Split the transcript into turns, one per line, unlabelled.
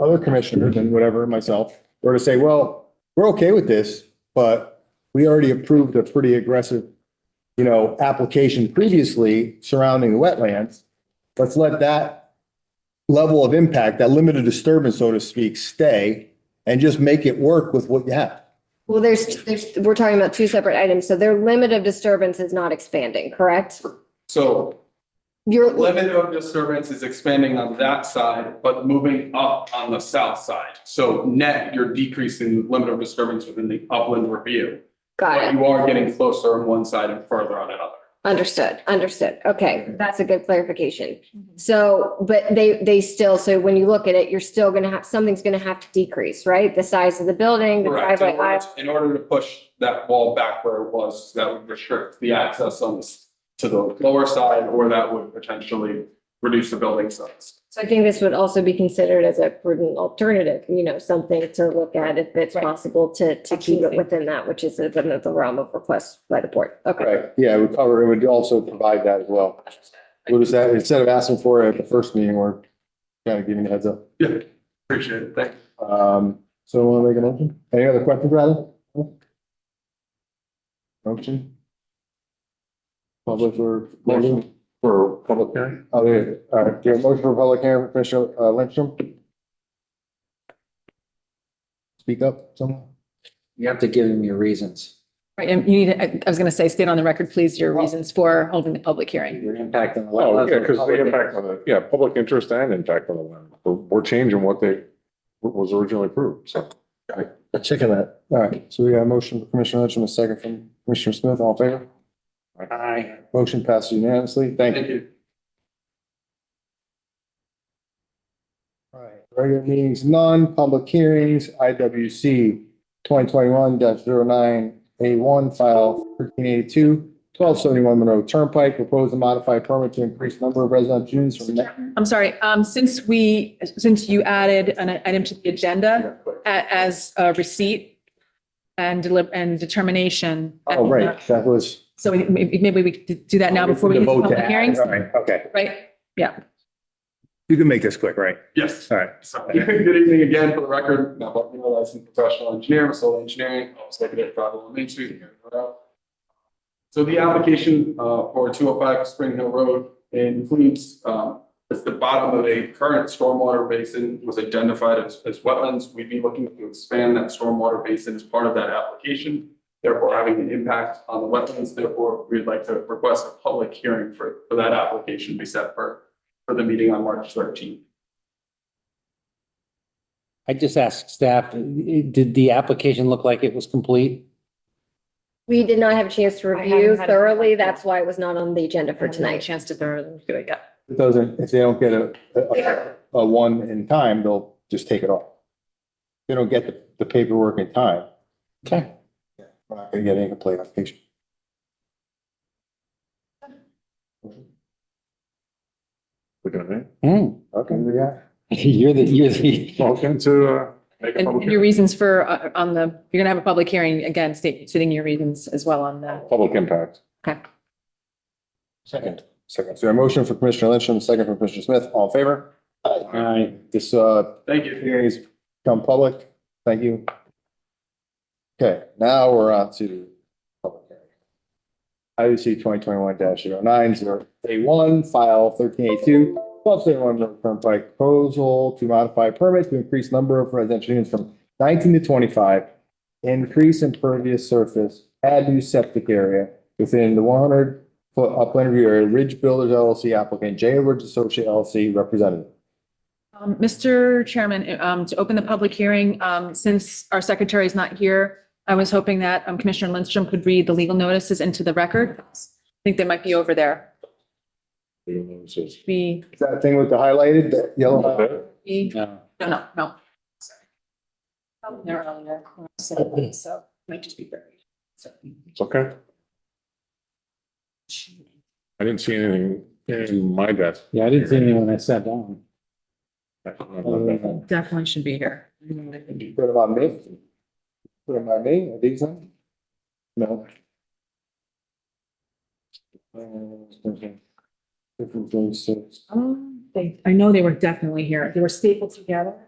other commissioners and whatever, myself, were to say, well, we're okay with this, but we already approved a pretty aggressive, you know, application previously surrounding the wetlands. Let's let that level of impact, that limited disturbance, so to speak, stay and just make it work with what you have.
Well, there's, there's, we're talking about two separate items, so their limit of disturbance is not expanding, correct?
So
Your,
limit of disturbance is expanding on that side, but moving up on the south side. So net, you're decreasing limit of disturbance within the upland review. But
got it,
you are getting closer on one side and further on another.
understood, understood, okay, that's a good clarification.
Mm-hmm.
So, but they, they still, so when you look at it, you're still gonna have, something's gonna have to decrease, right? The size of the building, the
Correct. In
driveway
order,
aisle,
in order to push that wall back where it was, that would restrict the access on this to the lower side, or that would potentially reduce the building size.
so I think this would also be considered as a prudent alternative, you know, something to look at if it's
Right.
possible to, to keep it
Absolutely.
within that, which is within the realm of request by the board, okay.
Right, yeah, it would cover, it would also provide that as well. What is that, instead of asking for it at the first meeting, we're kind of giving you a heads up.
Yeah, appreciate it. Thank you.
Um, so want to make a motion? Any other questions, rather? Motion? Public or? Motion for public hearing? Oh, there, all right, your motion for public hearing, Commissioner uh, Lindstrom? Speak up, someone?
You have to give him your reasons.
Right, and you need, I I was going to say, state on the record, please, your reasons for holding the public hearing.
Your impact on the.
Oh,
wetlands
yeah,
and
because the
public
impact
interest.
on the, yeah, public interest and impact on the land. We're, we're changing what they, what was originally approved, so.
A chicken that. All right, so we got a motion from Commissioner Lynch and a second from Commissioner Smith, all in favor?
Aye.
Motion passes unanimously, thank you.
Thank you.
All right, regular meetings, none, public hearings, IWC twenty twenty-one 9 A one, file 1382, 1271 Monroe Turnpike, propose a modified permit to increase number of resident units from. net-
I'm sorry, um, since we, since you added an item to the agenda
Oh,
a- as a receipt and deli- and determination.
oh, right, that was.
So we- maybe maybe we could do that now before we
The
get to
vote to
public
add.
hearings,
All right, okay.
right?
You can make this quick, right?
Yes.
All right.
So, Good evening again for the record. Matt Bucknell, licensed professional engineer, Masola Engineering, I was looking at Travel Main Street. here in Rhode Island. So the application uh, for two oh five Spring Hill Road includes, um, it's the bottom of a current stormwater basin was identified as, as wetlands. We'd be looking to expand that stormwater basin as part of that application, therefore having an impact on the wetlands. Therefore, we'd like to request a public hearing for, for that application be set for, for the meeting on March thirteenth.
I just asked staff, did the application look like it was complete?
We did not have a chance to
I haven't
review
had a-
thoroughly. That's why it was not on the agenda for tonight.
Chance to thoroughly do it, yeah.
It doesn't, if they don't get a, a, a one in time, they'll just take it off. If They don't get the- the paperwork in time.
Okay.
We're not gonna get any complaint application.
Looking at me.
Hmm.
Okay, yeah.
You're the, you're the,
Motion to, uh, make a
And
public,
your
hearing.
reasons for, uh, on the, you're going to have a public hearing, again, state, stating your reasons as well on the.
public impact.
Second. Second. So a motion for Commissioner Lynch and a second for Commissioner Smith. All in favor? Aye. This, uh,
Thank you.
hearing has become public. Thank you. Okay, now we're on to public hearing. IUC twenty twenty-one 9 zero nine zero eight one, file thirteen eighty-two, twelve seventy-one River Turnpike proposal to modify permit to increase number of residential units from nineteen to twenty-five, increase impervious surface, add new septic area within the one hundred foot upland review area, Ridge Builders LLC applicant, J. Ridge Associate LLC representative.
Um, Mr. Chairman, um, to open the public hearing, um, since our secretary is not here, I was hoping that um, Commissioner Lindstrom could read the legal notices into the record. I think they might be over there. Be,
Is that thing with the highlighted, the yellow? highlight?
be,
no.
no, no, no. Sorry. They're earlier, so, so might just be buried. So,
It's okay. I didn't see anything in my desk.
Yeah, I didn't see anyone that sat down.
I don't know about
Definitely should be here.
Put them on me? Put them on me, are these on? No.
Um, they, I know they were definitely here. They were stapled together.